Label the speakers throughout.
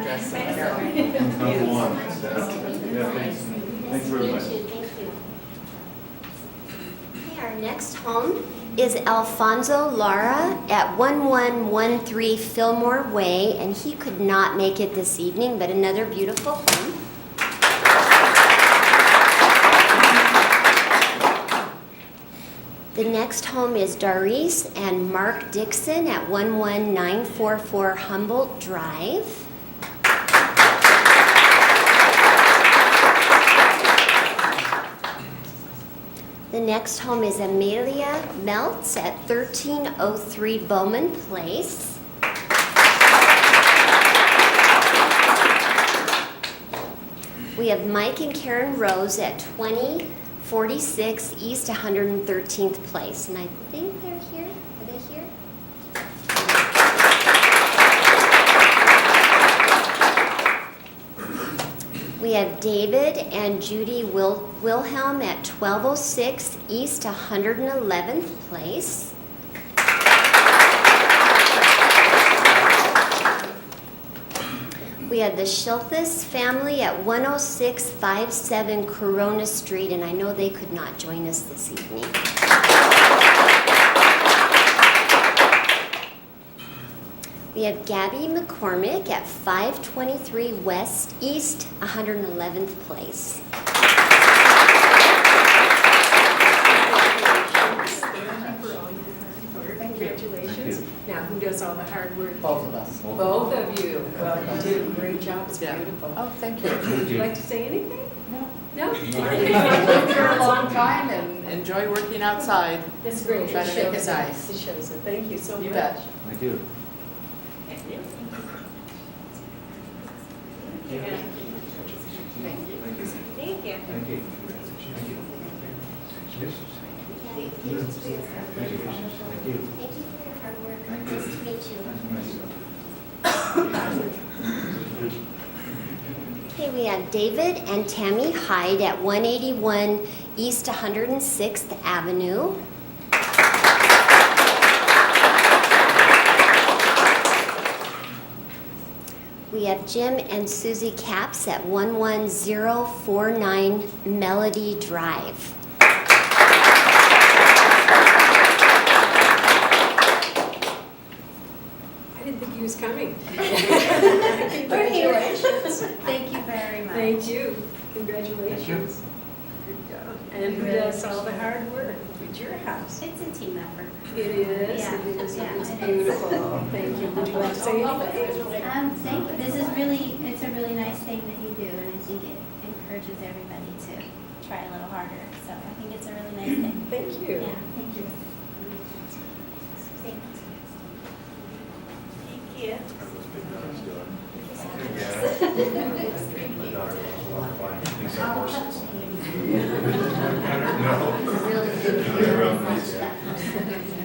Speaker 1: Yes,
Speaker 2: Number one. Yeah, thanks.
Speaker 3: Nice
Speaker 2: Thanks
Speaker 3: to
Speaker 2: very
Speaker 3: meet
Speaker 2: much.
Speaker 3: you, thank you. Okay, our next home is Alfonso Lara at 1113 Fillmore Way, and he could not make it this evening, but another beautiful home. The next home is Doris and Mark Dixon at 11944 Humboldt Drive. The next home is Amelia Meltz at 1303 Bowman Place. We have Mike and Karen Rose at 2046 East 113th Place, and I think they're here. Are they here? We have David and Judy Wil- Wilhelm at 1206 East 111th Place. We have the Schilthus family at 10657 Corona Street, and I know they could not join us this evening. We have Gabby McCormick at 523 West East 111th Place.
Speaker 4: Thank you for all your hard work. Congratulations. Now, who does all the hard work?
Speaker 1: Both of us.
Speaker 4: Both of you. Well, you did a great job. It's
Speaker 1: Yeah.
Speaker 4: beautiful.
Speaker 5: Oh, thank you.
Speaker 4: Would you like to say anything?
Speaker 5: No.
Speaker 4: No?
Speaker 5: I've lived here a long time and enjoy working outside.
Speaker 4: That's great.
Speaker 5: Try to
Speaker 4: It
Speaker 5: make it
Speaker 4: shows
Speaker 5: nice.
Speaker 4: It shows it. Thank you so much.
Speaker 5: You bet.
Speaker 2: I do.
Speaker 4: Thank you. Thank you.
Speaker 2: Thank you. Thank you. Thank you.
Speaker 3: Thank you for your hard work.
Speaker 2: Thank you.
Speaker 3: Nice to meet you. Okay, we have David and Tammy Hyde at 181 East 106th Avenue. We have Jim and Susie Capps at 11049 Melody Drive.
Speaker 4: I didn't think he was coming.
Speaker 6: We're here.
Speaker 4: Congratulations.
Speaker 6: Thank you very much.
Speaker 4: Thank you. Congratulations. Good job. And who does all the hard work? It's your house.
Speaker 6: It's a team effort.
Speaker 4: It is,
Speaker 6: Yeah,
Speaker 4: it is,
Speaker 6: yeah,
Speaker 4: it's
Speaker 6: it is.
Speaker 4: beautiful, thank you, would you like to say anything?
Speaker 6: Um, thank, this is really, it's a really nice thing that you do, and I think it encourages everybody to try a little harder. So I think it's a really nice thing.
Speaker 4: Thank
Speaker 6: Yeah,
Speaker 4: you.
Speaker 6: thank you. Thank
Speaker 4: Thank you.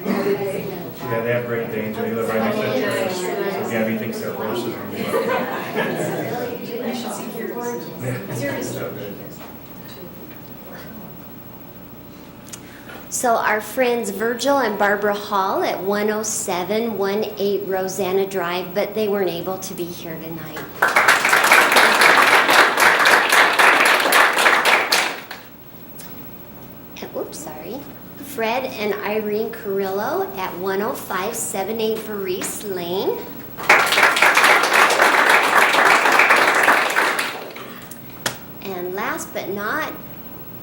Speaker 7: Yeah, they have great danes, and they live right next to the church. So Gabby thinks they're horses.
Speaker 4: You should see yours. Seriously.
Speaker 3: So our friends Virgil and Barbara Hall at 107, 18 Rosanna Drive, but they weren't able to be here tonight. And- Oops, sorry. Fred and Irene Carrillo at 10578 Varice Lane. And last but not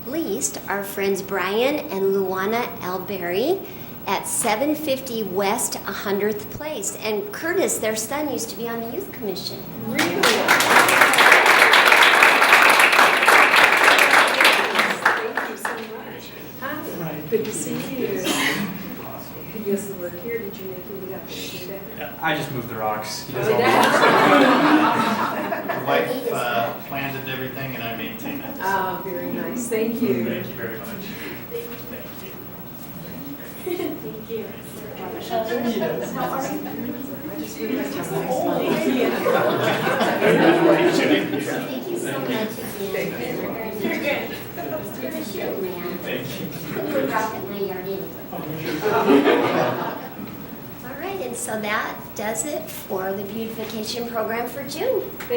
Speaker 3: least, our friends Brian and Luana Alberry at 750 West 100th Place. And Curtis, their son, used to be on the youth commission.
Speaker 4: Really? Thank you so much. Hi, good to see you. Yes, we're here, did you make me up? Did you do that?
Speaker 8: I just moved the rocks. He does all the
Speaker 4: Oh,
Speaker 8: work. Wife uh, planted everything and I maintain it. so
Speaker 4: Ah, very nice, thank you.
Speaker 8: Thank you very much. Thank you.
Speaker 3: Thank you so much again. You're good. Put a rock in my yard anyway. All right, and so that does it for the beautification program for June.